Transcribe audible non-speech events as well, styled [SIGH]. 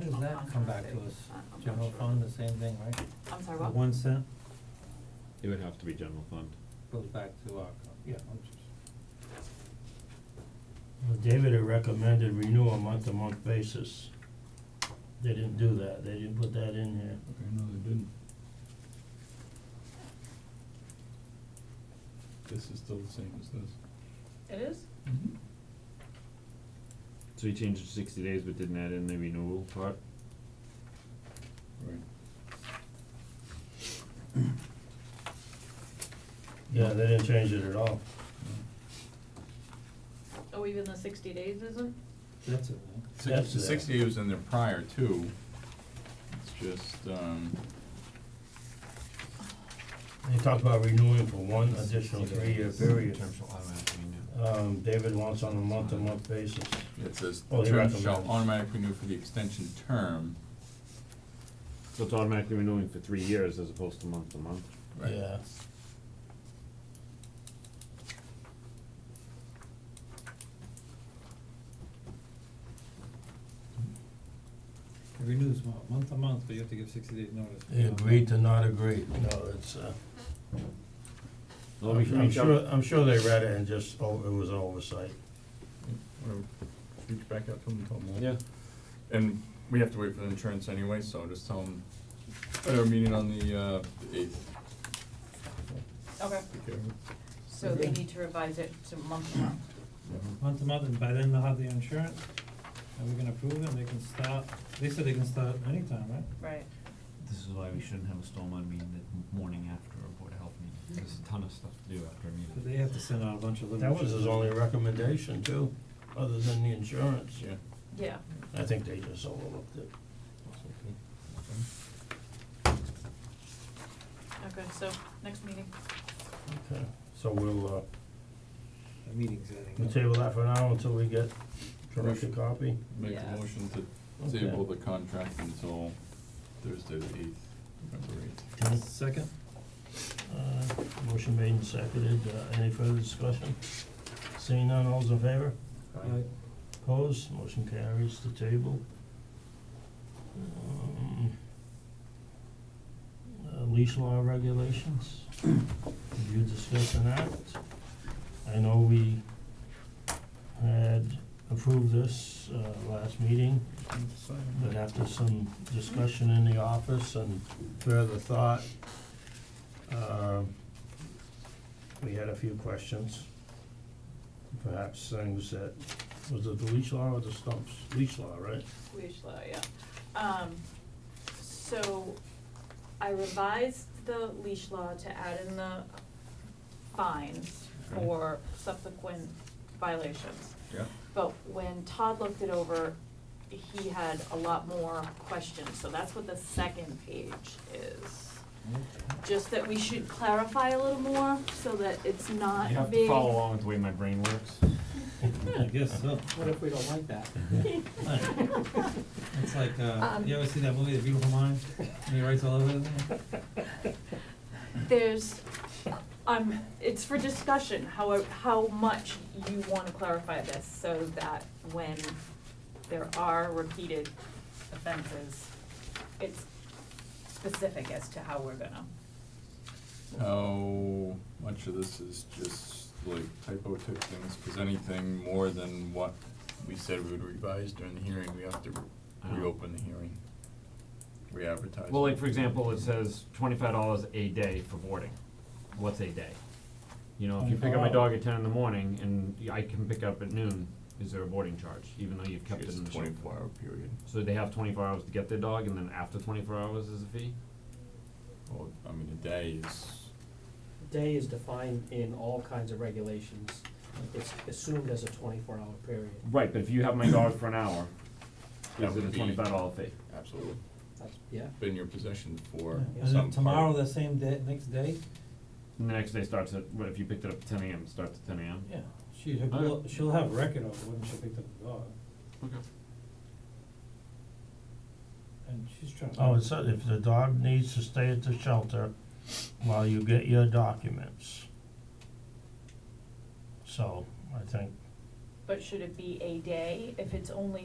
does that come back to us? I'm- I'm not General sure. fund, the same thing, right? I'm The sorry, what? One cent It would have to be general fund. goes back to our, co- yeah, I'm just, Well, David had recommended renew on month-to-month basis. They didn't do that, they didn't put that in here. Okay, no, they didn't. This is still the same as this. It is? So you changed it to sixty days but didn't add in the renewal part? Right. Yeah, they didn't change it at all. Oh, even the sixty days isn't? that's it, right? That's Six, the there. sixty-eight was in there prior too. It's just, um, They talked about renewing for one additional three-year period. Um, David wants on a month-to-month basis. it says, Oh, they term shall recommend. automatically renew for the extension term. So it's automatically renewing for three years as opposed to month to month? Right. Yeah. It renews mo- month to month, but you have to give sixty days notice. They agreed to not agree, no, it's, uh, Well, we can I'm reach out- sure, I'm sure they read it and just, oh, it was oversight. Whatever, reach back out to them, and tell them that. Yeah, And we have to wait for the insurance anyway, so just tell them, at our meeting on the, uh, the eighth. Okay, Okay. so they need to revise it to month to month. Month Mm-hmm. to month, and by then they'll have the insurance, and we can approve it, and they can start, they said they can start anytime, right? Right. This is why we shouldn't have a storm on meeting the morning after a Board of Health meeting. There's a ton of stuff to do after a But meeting. they have to send out a bunch of little. That was his only recommendation too, other than the insurance. Yeah. Yeah, I think they just overlooked it. okay, so next meeting. Okay, so we'll, uh, The meetings, I think. we'll table that for now until we get corrected copy. Make Yeah. a motion to Okay. table the contract until Thursday the eighth, November eighth. Second, Uh, motion made and seconded, uh, any further discussion? Seeing none, all's in favor? I, Opposed, motion carries to table. Um, uh, Leash law regulations, did you discuss an act? I know we had approved this uh last meeting, but after some discussion in the office and further thought, um, we had a few questions. Perhaps things that, was it the leash law or the stumps? Leash law, right? Leash law, yeah. Um, so I revised the leash law to add in the fines Okay. for subsequent violations. Yeah. But when Todd looked it over, he had a lot more questions, so that's what the second page is. Just that we should clarify a little more, so that it's not you have to Uh, being. follow [LAUGHS] along with the way my brain works. Uh, I guess so. What if we don't like that? [LAUGHS] It's like, uh, Um, you ever see that movie, The Beautiful Mind, and he writes all [LAUGHS] over it? [LAUGHS] There's, um, it's for discussion, how, how much you wanna clarify this, so that when there are repeated offenses, it's specific as to how we're gonna. How much of this is just like typo type things, cause anything more than what we said we would revise during the hearing, we have to I know. reopen the hearing. Re-advertise. Uh-huh. Well, like, for example, it says twenty-five dollars a day for boarding. What's a day? You know, if you pick up my dog at ten in the morning and I can pick up at noon, is there a boarding charge, even though you've kept it It's in the shelter? twenty-four hour period, So they have twenty-four hours to get their dog, and then after twenty-four hours is a fee? well, I mean, a day is, Day is defined in all kinds of regulations. It's assumed as a twenty-four hour period. Right, but if you have my dog for an hour, That is it would a be- twenty-five dollar fee? absolutely, That's, yeah, been in your possession for And some then part. tomorrow, the same day, next day, And the next day starts at, what, if you picked it up at ten AM, it starts at ten AM? yeah, she, will she'll have record of when she picked up the dog, Okay. and she's trying to. Oh, it said if the dog needs to stay at the shelter while you get your documents. So, I think But should it be a day, if it's only